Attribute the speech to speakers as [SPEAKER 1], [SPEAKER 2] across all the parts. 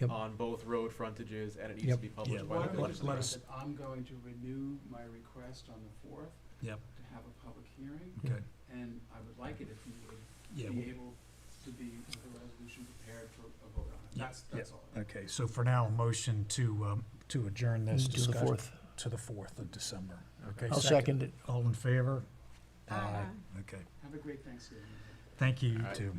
[SPEAKER 1] Yep.
[SPEAKER 2] on both road frontages, and it needs
[SPEAKER 1] Yep.
[SPEAKER 2] to be
[SPEAKER 3] Yeah,
[SPEAKER 2] published
[SPEAKER 3] why
[SPEAKER 2] by the
[SPEAKER 3] don't we
[SPEAKER 2] village.
[SPEAKER 3] just let us-
[SPEAKER 4] that I'm going to renew my request on the fourth
[SPEAKER 3] Yep.
[SPEAKER 4] to have a public hearing,
[SPEAKER 3] Okay,
[SPEAKER 4] and I would like it if you would
[SPEAKER 3] yeah,
[SPEAKER 4] be
[SPEAKER 3] w-
[SPEAKER 4] able to be with a resolution prepared for a vote on it.
[SPEAKER 3] Yeah,
[SPEAKER 4] That's, that's all.
[SPEAKER 3] okay, so for now, motion to, um, to adjourn this
[SPEAKER 1] To Mm, the
[SPEAKER 3] discussion.
[SPEAKER 1] fourth.
[SPEAKER 3] To the fourth of December, okay?
[SPEAKER 1] I'll second it.
[SPEAKER 3] All in favor?
[SPEAKER 1] Uh,
[SPEAKER 5] Uh,
[SPEAKER 6] Aye.
[SPEAKER 3] Okay,
[SPEAKER 4] Have a great Thanksgiving.
[SPEAKER 3] thank you, you
[SPEAKER 2] Alright.
[SPEAKER 3] two.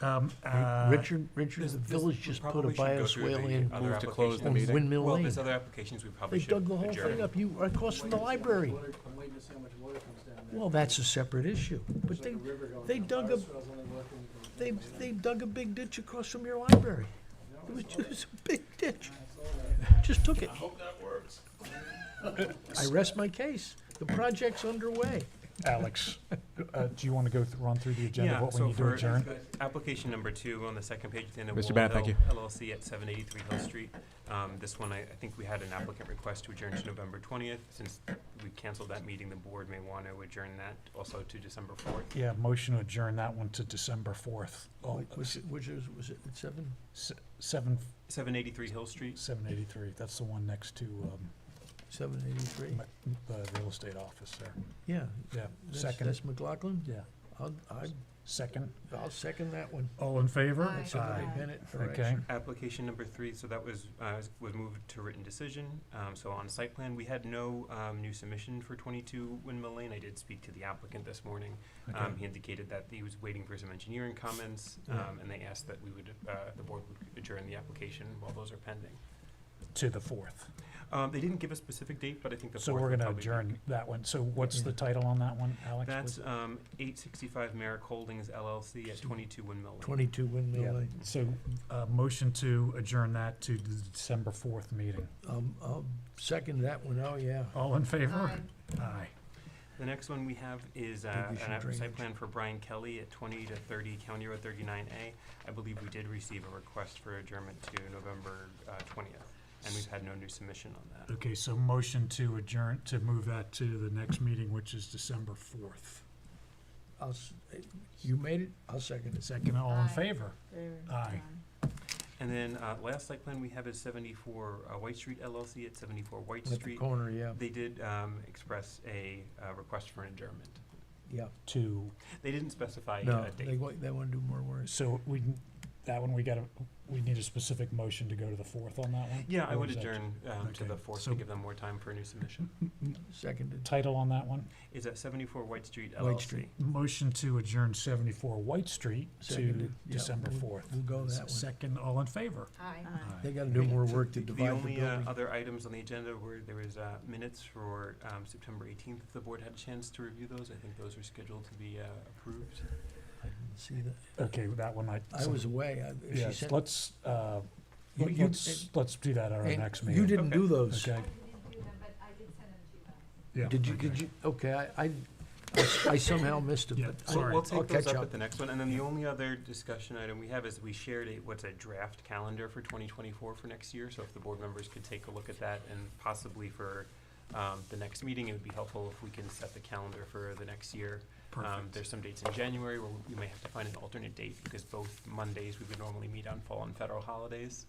[SPEAKER 3] Um,
[SPEAKER 1] Ri-
[SPEAKER 3] uh,
[SPEAKER 1] Richard, Richard,
[SPEAKER 5] this-
[SPEAKER 1] the
[SPEAKER 5] this-
[SPEAKER 1] village
[SPEAKER 5] we
[SPEAKER 1] just put a
[SPEAKER 5] probably should go through
[SPEAKER 1] bioswale
[SPEAKER 5] the
[SPEAKER 1] in
[SPEAKER 5] other
[SPEAKER 2] Move to close the
[SPEAKER 5] applications.
[SPEAKER 1] on
[SPEAKER 2] meeting.
[SPEAKER 1] Windmill
[SPEAKER 5] Well,
[SPEAKER 1] Lane.
[SPEAKER 5] there's other applications we probably
[SPEAKER 1] They
[SPEAKER 5] should
[SPEAKER 1] dug the whole
[SPEAKER 5] adjourn.
[SPEAKER 1] thing up, you, right across from the library.
[SPEAKER 4] I'm waiting to see how much water comes down
[SPEAKER 1] Well, that's a separate issue, but they, they dug a, they, they dug a big ditch across from your library. It was just a big ditch. Just took it. I hope that works. I rest my case. The project's underway.
[SPEAKER 3] Alex, uh, do you want to go, th- run through the agenda,
[SPEAKER 5] Yeah,
[SPEAKER 3] of what we
[SPEAKER 5] so
[SPEAKER 3] need to
[SPEAKER 5] for-
[SPEAKER 3] adjourn?
[SPEAKER 5] Application number two on the second page, at the end of
[SPEAKER 2] Mr.
[SPEAKER 5] Wall
[SPEAKER 2] Bennett, thank
[SPEAKER 5] Hill LLC at seven eighty-three Hill Street. Um, this one, I, I think we had an applicant request to adjourn to November twentieth. Since we canceled that meeting, the board may want to adjourn that also to December fourth.
[SPEAKER 3] Yeah, motion to adjourn that one to December fourth,
[SPEAKER 1] Oh, was it, was it, was it at seven?
[SPEAKER 3] seven,
[SPEAKER 5] Seven eighty-three Hill Street.
[SPEAKER 3] seven eighty-three, that's the one next to, um,
[SPEAKER 1] Seven eighty-three?
[SPEAKER 3] m- the real estate office there.
[SPEAKER 1] Yeah.
[SPEAKER 3] Yeah,
[SPEAKER 1] That's-
[SPEAKER 3] second,
[SPEAKER 1] That's McLaughlin?
[SPEAKER 3] yeah,
[SPEAKER 1] I'll, I,
[SPEAKER 3] second.
[SPEAKER 1] I'll second that one.
[SPEAKER 3] All in favor?
[SPEAKER 6] Aye.
[SPEAKER 1] That's a
[SPEAKER 6] Aye.
[SPEAKER 1] great minute
[SPEAKER 3] Okay,
[SPEAKER 1] direction.
[SPEAKER 5] Application number three, so that was, uh, was moved to written decision, um, so on site plan, we had no, um, new submission for twenty-two Windmill Lane, I did speak to the applicant this morning. Um,
[SPEAKER 3] okay,
[SPEAKER 5] he indicated that he was waiting for some engineering comments,
[SPEAKER 3] Yeah.
[SPEAKER 5] um, and they asked that we would, uh, the board would adjourn the application while those are pending.
[SPEAKER 3] to the fourth.
[SPEAKER 5] Um, they didn't give a specific date, but I think the
[SPEAKER 3] So
[SPEAKER 5] fourth
[SPEAKER 3] we're
[SPEAKER 5] would
[SPEAKER 3] gonna
[SPEAKER 5] probably be- Mm-hmm.
[SPEAKER 3] adjourn that one, so what's the
[SPEAKER 1] Yeah.
[SPEAKER 3] title on that one, Alex?
[SPEAKER 5] That's, um, eight sixty-five Merrick Holdings LLC at twenty-two Windmill Lane.
[SPEAKER 1] Twenty-two Windmill
[SPEAKER 3] Yeah.
[SPEAKER 1] Lane.
[SPEAKER 3] So, uh, motion to adjourn that to the December fourth meeting.
[SPEAKER 1] Um, I'll second that one. Oh, yeah.
[SPEAKER 3] All in favor?
[SPEAKER 6] Aye.
[SPEAKER 3] Aye.
[SPEAKER 5] The next one we have is uh,
[SPEAKER 1] Maybe
[SPEAKER 5] an
[SPEAKER 1] some
[SPEAKER 5] app-
[SPEAKER 1] drainage.
[SPEAKER 5] site plan for Brian Kelly at twenty to thirty County Road thirty-nine A. I believe we did receive a request for adjournment to November twentieth, and we've had no new submission on that.
[SPEAKER 3] Okay, so motion to adjourn, to move that to the next meeting, which is December fourth.
[SPEAKER 1] I'll, s- you made it? I'll second it.
[SPEAKER 3] Second, all in
[SPEAKER 6] Aye.
[SPEAKER 3] favor? Aye.
[SPEAKER 5] And then uh, last site plan we have is seventy-four uh, White Street LLC at seventy-four White
[SPEAKER 1] At the
[SPEAKER 5] Street.
[SPEAKER 1] corner, yeah,
[SPEAKER 5] They did um, express a uh, request for an adjournment.
[SPEAKER 1] yeah.
[SPEAKER 3] To,
[SPEAKER 5] They didn't specify
[SPEAKER 1] No,
[SPEAKER 5] a
[SPEAKER 1] they
[SPEAKER 5] date.
[SPEAKER 1] want, they want to do more work.
[SPEAKER 3] so we, n- that one, we gotta, we need a specific motion to go to the fourth on that one?
[SPEAKER 5] Yeah, I
[SPEAKER 3] Or
[SPEAKER 5] would
[SPEAKER 3] is that-
[SPEAKER 5] adjourn um, to
[SPEAKER 3] okay,
[SPEAKER 5] the fourth
[SPEAKER 3] so-
[SPEAKER 5] to give them more time for a new submission.
[SPEAKER 3] Mm.
[SPEAKER 1] Seconded.
[SPEAKER 3] Title on that one?
[SPEAKER 5] Is at seventy-four White Street LLC.
[SPEAKER 1] White Street.
[SPEAKER 3] Motion to adjourn seventy-four White Street to
[SPEAKER 1] Seconded. Yeah,
[SPEAKER 3] December
[SPEAKER 1] we'll-
[SPEAKER 3] fourth.
[SPEAKER 1] we'll go that one.
[SPEAKER 3] Second, all in favor?
[SPEAKER 6] Aye.
[SPEAKER 1] They got to do more work to
[SPEAKER 5] The
[SPEAKER 1] divide the
[SPEAKER 5] only uh,
[SPEAKER 1] building.
[SPEAKER 5] other items on the agenda were, there was uh, minutes for um, September 18th, if the board had a chance to review those. I think those are scheduled to be uh, approved.
[SPEAKER 1] I didn't See that?
[SPEAKER 3] Okay, with that one I.
[SPEAKER 1] I was away. I- she
[SPEAKER 3] Yes,
[SPEAKER 1] said-
[SPEAKER 3] let's, uh,
[SPEAKER 1] You-
[SPEAKER 3] let-
[SPEAKER 1] you-
[SPEAKER 3] let's, let's do that at our
[SPEAKER 1] and
[SPEAKER 3] next
[SPEAKER 1] You
[SPEAKER 3] meeting,
[SPEAKER 1] didn't do those.
[SPEAKER 3] okay? Yeah,
[SPEAKER 1] Did you,
[SPEAKER 3] okay.
[SPEAKER 1] did you, okay, I, I, I somehow missed it,
[SPEAKER 3] Yeah,
[SPEAKER 1] but. I-
[SPEAKER 5] We'll-
[SPEAKER 3] sorry.
[SPEAKER 5] We'll
[SPEAKER 1] I'll
[SPEAKER 5] take those
[SPEAKER 1] catch
[SPEAKER 5] up at the next one. And then the only other discussion item we have is we shared a, what's a draft calendar for 2024 for next year. So if the board members could take a look at that and possibly for um, the next meeting, it would be helpful if we can set the calendar for the next year. Um,
[SPEAKER 3] Perfect.
[SPEAKER 5] There's some dates in January where we may have to find an alternate date because both Mondays we would normally meet on fall and federal holidays.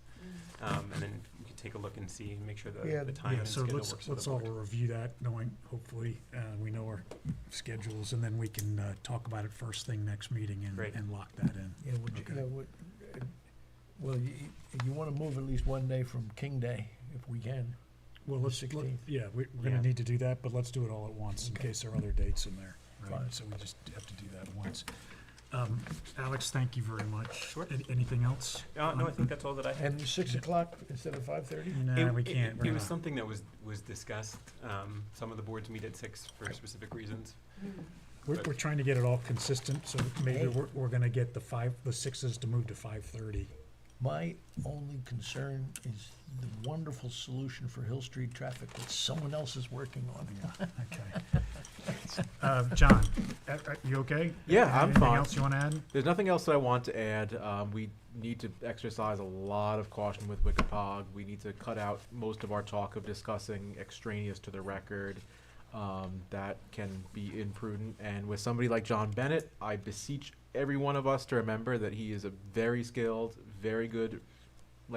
[SPEAKER 5] Um, and then we can take a look and see, and make sure
[SPEAKER 1] Yeah,
[SPEAKER 5] the, the time
[SPEAKER 3] Yeah,
[SPEAKER 5] and
[SPEAKER 3] so
[SPEAKER 5] schedule
[SPEAKER 3] let's,
[SPEAKER 5] works for
[SPEAKER 3] let's
[SPEAKER 5] the
[SPEAKER 3] all
[SPEAKER 5] board.
[SPEAKER 3] review that, knowing, hopefully, uh, we know our schedules, and then we can, uh, talk about it first thing next meeting and,
[SPEAKER 5] Great.
[SPEAKER 3] and lock that in.
[SPEAKER 1] Yeah, would you,
[SPEAKER 3] Okay.
[SPEAKER 1] yeah, would, uh, well, you, you want to move at least one day from King Day, if we can.
[SPEAKER 3] Well, let's, let-
[SPEAKER 1] 16th.
[SPEAKER 3] yeah, we, we're gonna
[SPEAKER 5] Yeah.
[SPEAKER 3] need to do that, but let's do it all at once, in
[SPEAKER 1] Okay.
[SPEAKER 3] case there are other dates in there,
[SPEAKER 1] Fine.
[SPEAKER 3] right? So we just have to do that once. Um, Alex, thank you very much.
[SPEAKER 5] Sure.
[SPEAKER 3] An- Anything else?
[SPEAKER 5] Uh, no, I think that's all that I had.
[SPEAKER 1] And six
[SPEAKER 3] Yeah.
[SPEAKER 1] o'clock instead of five thirty?
[SPEAKER 3] No,
[SPEAKER 5] It-
[SPEAKER 3] we
[SPEAKER 5] it-
[SPEAKER 3] can't,
[SPEAKER 5] It
[SPEAKER 3] we're
[SPEAKER 5] was
[SPEAKER 3] not.
[SPEAKER 5] something that was, was discussed. Um, some of the boards meet at six for specific reasons.
[SPEAKER 3] We're, we're trying to get it all consistent, so
[SPEAKER 1] Hey.
[SPEAKER 3] maybe we're, we're gonna get the five, the sixes to move to five thirty.
[SPEAKER 1] My only concern is the wonderful solution for Hill Street traffic that someone else is working on.
[SPEAKER 3] Okay. Uh, John, uh, uh, you okay?
[SPEAKER 2] Yeah,
[SPEAKER 3] Have
[SPEAKER 2] I'm
[SPEAKER 3] Anything
[SPEAKER 2] fine.
[SPEAKER 3] else you wanna add?
[SPEAKER 2] There's nothing else that I want to add. Um, we need to exercise a lot of caution with Wikipog. We need to cut out most of our talk of discussing extraneous to the record. Um, that can be imprudent. And with somebody like John Bennett, I beseech every one of us to remember that he is a very skilled, very good